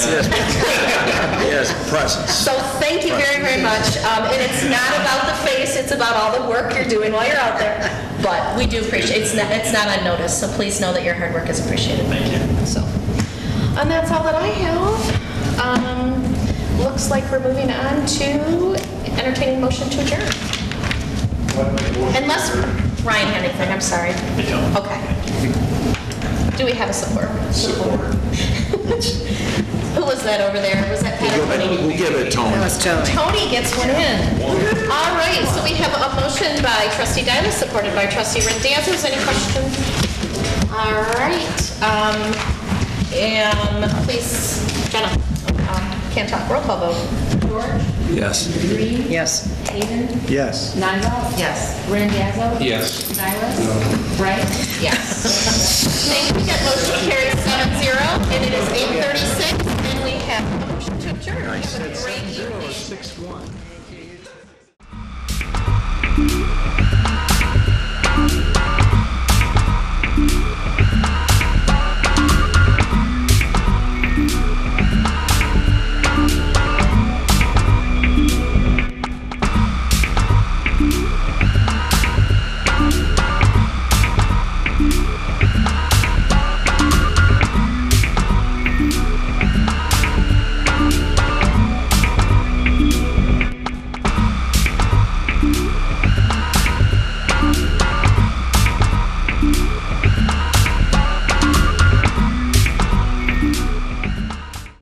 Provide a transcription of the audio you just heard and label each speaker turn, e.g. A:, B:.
A: Yes, presence.
B: So thank you very, very much. Um, And it's not about the face, it's about all the work you're doing while you're out there. But we do appreciate, it's not, it's not unnoticed, so please know that your hard work is appreciated. Thank you. So, and that's all that I have. Um, Looks like we're moving on to entertaining motion to adjourn. Unless Ryan had anything, I'm sorry. I don't. Okay. Do we have a support? Support. Who was that over there? Was that Pat or Tony?
A: We'll give it, Tony.
B: Tony gets one in. All right, so we have a motion by trustee Dylas, supported by trustee Rendanza. Any questions? All right, um, and please, Jenna, um, can't talk, roll call vote.
C: George?
A: Yes.
C: Green?
D: Yes.
C: Haven?
A: Yes.
C: Nigel?
B: Yes.
C: Randazzo?
A: Yes.
C: Silas? Right?
B: Yes. Thank you, that motion carries seven zero, and it is eight thirty-six, and we have a motion to adjourn. Have a great evening.
A: Six, one.